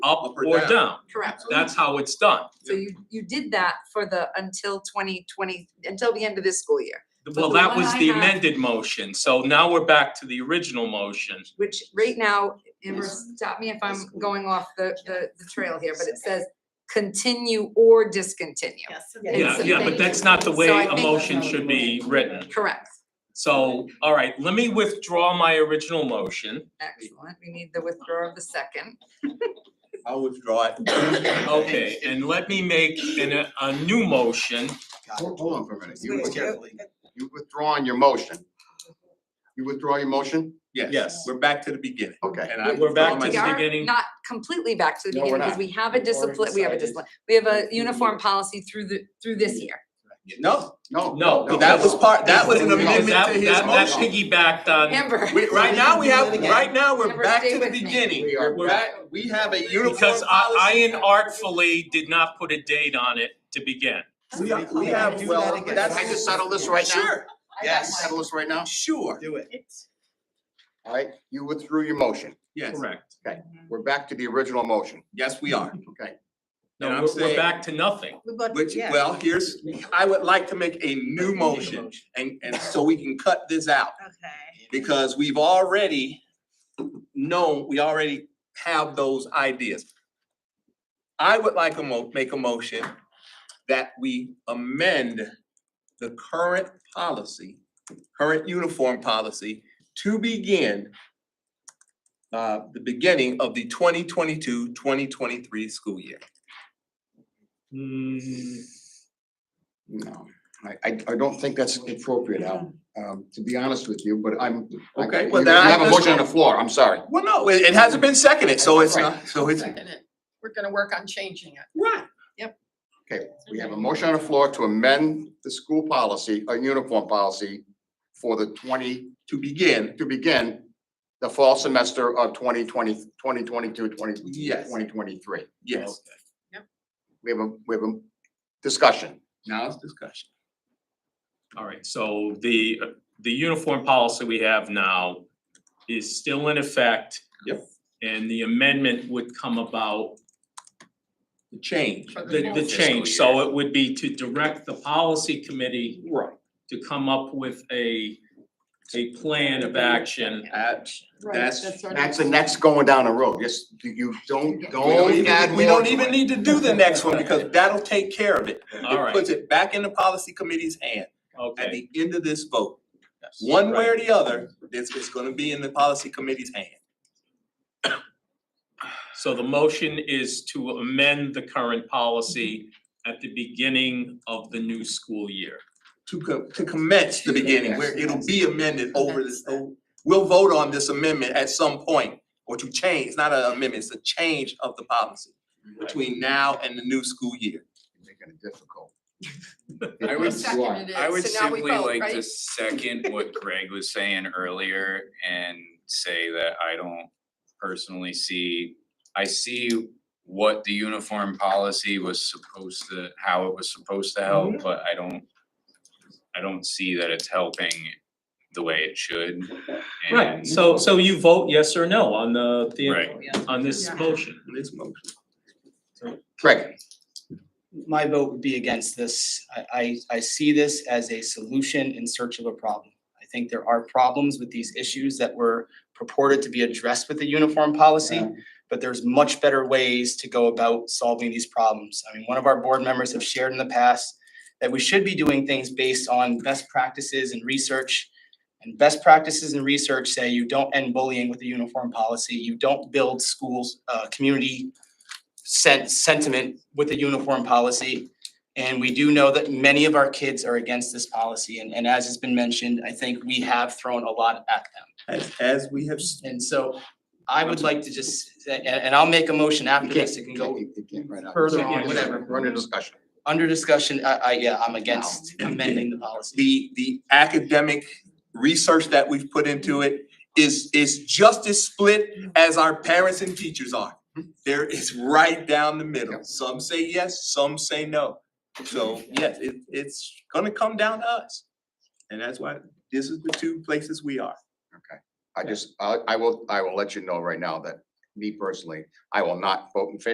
up Up or or down. down. Correct. That's how it's done. So you, you did that for the until twenty twenty, until the end of this school year, Well, the that one was I the have- amended motion, so now we're back to the original motion. which right now, Amber, Yes. stop me if Yes, I'm cool. going off the, the, the trail here, but it says continue or discontinue. Yes. Yeah, Yeah, so yeah, but thank that's not the So way I a think- motion should be written. Correct, So, all right, let me withdraw my original motion. excellent, we need the withdrawal of the second. I'll withdraw it. Okay, and let me make an, a new motion. Hold hold on for a minute. You Wait, with- Carefully. You withdrawing your motion. You withdraw your motion? Yes. Yes, we're back to the beginning. Okay. And I We're back withdraw to We the my- are beginning. Not completely back to the No, we're beginning, because we have a We've already discipline, we have a decided. discipline, we have a Through the uniform year. policy through the, through this year. No, No. No, no, that was part, that was an Because amendment That, to his that, that motion. piggybacked on, Amber. We- Right now, we have, right now, we're Amber, back stay to the with me. beginning. We are We're back, we have a uniform because I, I policy. inartfully did not put a date on it to begin. We are- we have, Do that well, again. that's. Can I just settle this right now? Sure, yes. Settle this right now? sure, Do it. All right, you withdrew your motion. yes, Correct. We're back to the original motion. yes, we are. Okay. No, And I'm we're, we're saying- back to nothing. Which, well, here's, I would like to make a new motion and, and so we can cut this out. Okay. Because we've already known, we already have those ideas. I would like to mo- make a motion that we amend the current policy, current uniform policy to begin uh, the beginning of the 2022-2023 school year. No, I, I, I don't think that's appropriate, Al, um, to be honest with you, but I'm. I- Okay, you- well, then I You have a just- motion on the floor. I'm sorry. Well, no, it, it hasn't been seconded, so it's Right. not, so it's. We're gonna work on changing it. Right. Okay, we have a motion on the floor to amend the school policy, a uniform policy for the twenty, To begin, to begin the fall semester of 2020, 2022, 20 Yes. 2023. yes. We have a, we have a discussion. Now it's discussion. All right, so the, uh, the uniform policy we have now is still in effect. Yep. And the amendment would come about, The change. For the, the full change, so it would be to direct the policy committee Right. to come up with a, a plan of action. That's- That's the next going down the road. Yes, you- you don't, We don't add don't, more. to even it. need to do the next one because that'll take care of it. All It right, puts it back in the policy committee's hand at okay. the end of this vote. One way or the other, it's, it's gonna be in the policy committee's hand. So the motion is to amend the current policy at the beginning of the new school year. To co- to commence the beginning, where it'll be amended over this, oh, we'll vote on this amendment at some point. Or to change, it's not an amendment, it's a change of the policy between now and the new school year. Making it difficult. I would You are. Seconded it, I would so now we simply vote, like right? to second what Greg was saying earlier and say that I don't personally see, I see what the uniform policy was supposed to, how it was supposed to Mm-hmm. help, but I don't, I don't see that it's helping the way it should. Right, and- so, so you vote yes or no on the, Right. the, on this Yeah. motion? This motion. Greg, My vote would be against this. I, I, I see this as a solution in search of a problem. I think there are problems with these issues that were purported to be addressed with the uniform policy, but there's much better ways to go about solving these problems. I mean, one of our board members have shared in the past that we should be doing things based on best practices and research. And best practices and research say you don't end bullying with a uniform policy. You don't build schools, uh, community sen- sentiment with the uniform policy. And we do know that many of our kids are against this policy, and, and as has been mentioned, I think we have thrown a lot at them. As, as we have, s- And so I would like to just, and, and I'll make a motion after this, it can go You can't right now. further You can't on, just whatever. Run a discussion. under discussion, I, I, yeah, I'm against No. amending the policy. the, the academic research that we've put into it is, is just as split as our parents and teachers are. There is right down the middle. Some say yes, some say no. So yes, it, it's gonna come down to us. And that's why this is the two places we are. I just, I, I will, I will let you know right now that me personally, I will not vote in favor